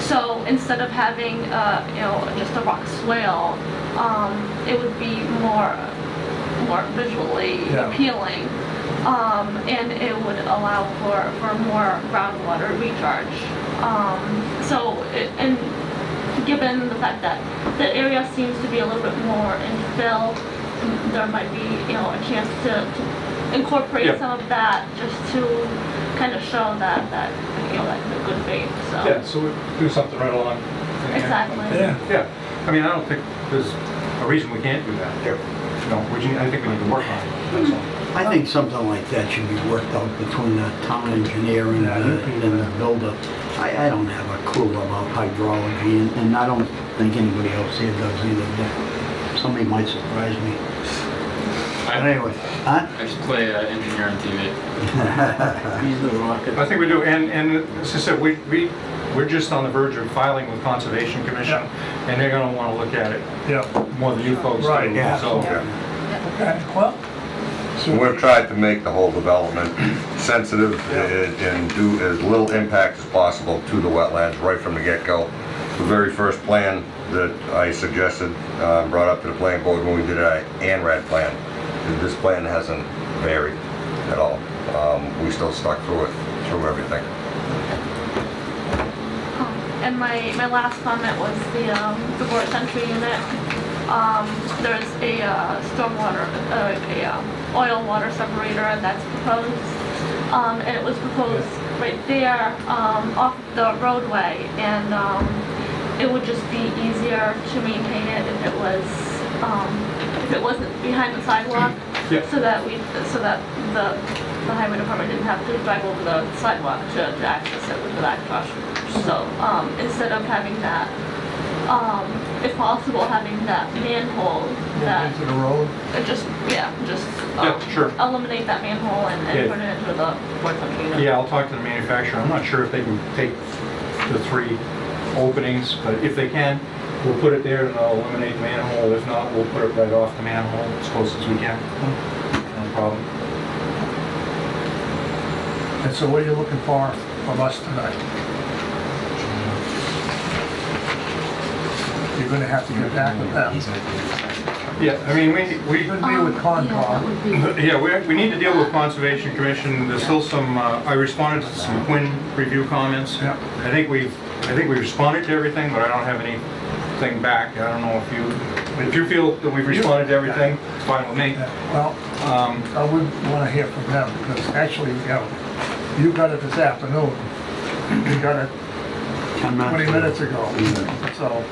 So instead of having, uh, you know, just a rock swale, um, it would be more, more visually Yeah. appealing. Um, and it would allow for, for more groundwater recharge. Um, so, it- and given the fact that the area seems to be a little bit more infill, there might be, you know, a chance to to incorporate Yeah. some of that just to kind of show that, that, you know, like the good faith, so. Yeah, so we do something right along. the end. Exactly. Yeah, Yeah, I mean, I don't think there's a reason we can't do that. You know, we ju- I think we need to work on it, that's all. I think something like that should be worked out between the town engineer and the, and the builder. I, I don't have a clue about hydrology, and, and I don't think anybody else here does either, but somebody might surprise me. But I, anyway, huh? I just play uh, engineer on TV. He's the rocket. I think we do, and, and as I said, we, we, we're just on the verge of filing with Conservation Commission, and they're gonna wanna look at it yeah, more than you folks do. Right, yeah. So, okay, well. so- We've tried to make the whole development sensitive and and do as little impact as possible to the wetlands right from the get-go. The very first plan that I suggested, uh, brought up to the planning board when we did our ANRAD plan, this plan hasn't varied at all. Um, We still stuck through it, through everything. Um, And my, my last comment was the, um, the board entry unit. Um, there's a, uh, stormwater, uh, a, um, oil water separator that's proposed. Um, and it was proposed right there, um, off the roadway and, um, it would just be easier to maintain it if it was, um, if it wasn't behind the sidewalk. Yeah. So that we, so that the, the highway department didn't have to drive over the sidewalk to, to access it with the backwash. So, um, instead of having that, um, if possible, having that manhole that, Into the road, uh, just, yeah, just, Yeah, um, sure. eliminate that manhole and, Yeah. and put it into the board container. yeah, I'll talk to the manufacturer, I'm not sure if they can take the three openings, but if they can, we'll put it there and I'll eliminate the manhole, if not, we'll put it right off the manhole as close as we can. No problem. and so what are you looking for from us tonight? You're gonna have to get back with them. Yeah, I mean, we, we, You're gonna be with Um, yeah, that Concom. would be- yeah, we, we need to deal with Conservation Commission, there's still some, uh, I responded to some Quinn review comments. Yeah. I think we've, I think we responded to everything, but I don't have anything back, I don't know if you, if you feel that we've responded to everything, it's fine with me. Yeah, Well, Um, I would wanna hear from them, because actually, you know, you got it this afternoon. You got it 20 minutes ago, so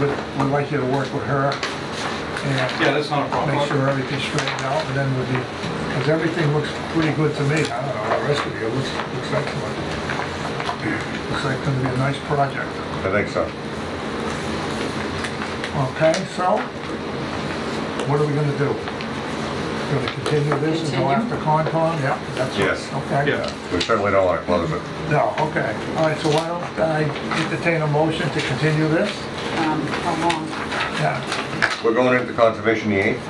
we'd we'd like you to work with her and yeah, that's not a problem. make sure everything's straightened out, and then we'll be, because everything looks pretty good to me. I don't know, the rest of you, it looks, looks excellent. Looks like it's gonna be a nice project. I think so. Okay, so what are we gonna do? Gonna continue this and go Continue? after Concom? Yeah, that's it? Yes. Okay. Yeah. We certainly don't want to close it. No, okay. All right, so why don't I entertain a motion to continue this? um, How long? Yeah. We're going into conservation the 8th,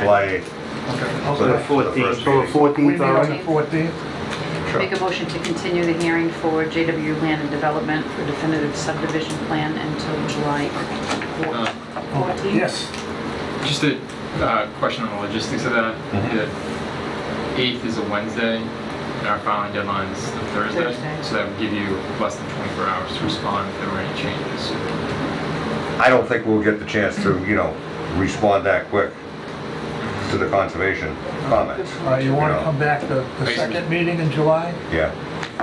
July 8th. So Okay. the- the first meeting. We meet fourteenth, on the 14th? Sure. Make a motion to continue the hearing for JW Land and Development for definitive subdivision plan until July Uh, 14th. Yes. Just a uh, question on the logistics of that. Mm-hmm. The eighth is a Wednesday, and our filing deadline is the Thursday. Thursday. So that would give you less than 24 hours to respond if there were any changes. I don't think we'll get the chance to, you know, respond that quick to the conservation comments. All right, you wanna come back to the second meeting in July? Yeah,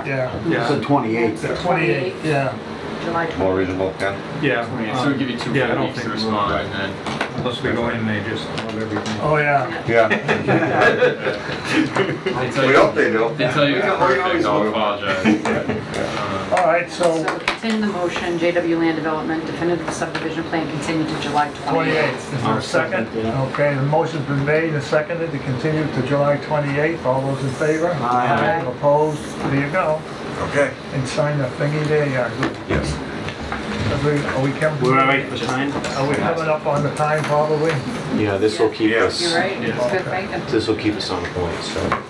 Yeah. it's the Yeah, twenty-eighth. The 28th, yeah. July 20th. more reasonable, Ken? yeah. I mean, so it would give you two Yeah, I don't weeks to think respond, we'll- and then Unless we go in and they just love everything. Oh, yeah. Yeah. they tell We you, hope they do. they tell you We it's hope- we perfect. always I'll hope. apologize. All right, so So continue the motion, JW Land Development definitive subdivision plan continued to July 28th, 28th. is there a second? Okay, the motion's been made and seconded to continue to July 28th. All those in favor? Aye. Opposed? There you go. Okay. And sign the thingy there, yeah. Yes. Are we- Are we coming? for time? Are we coming up on the time probably? Yeah, this will keep us, Yes. You're right, it's good, right? this will keep us on point, so.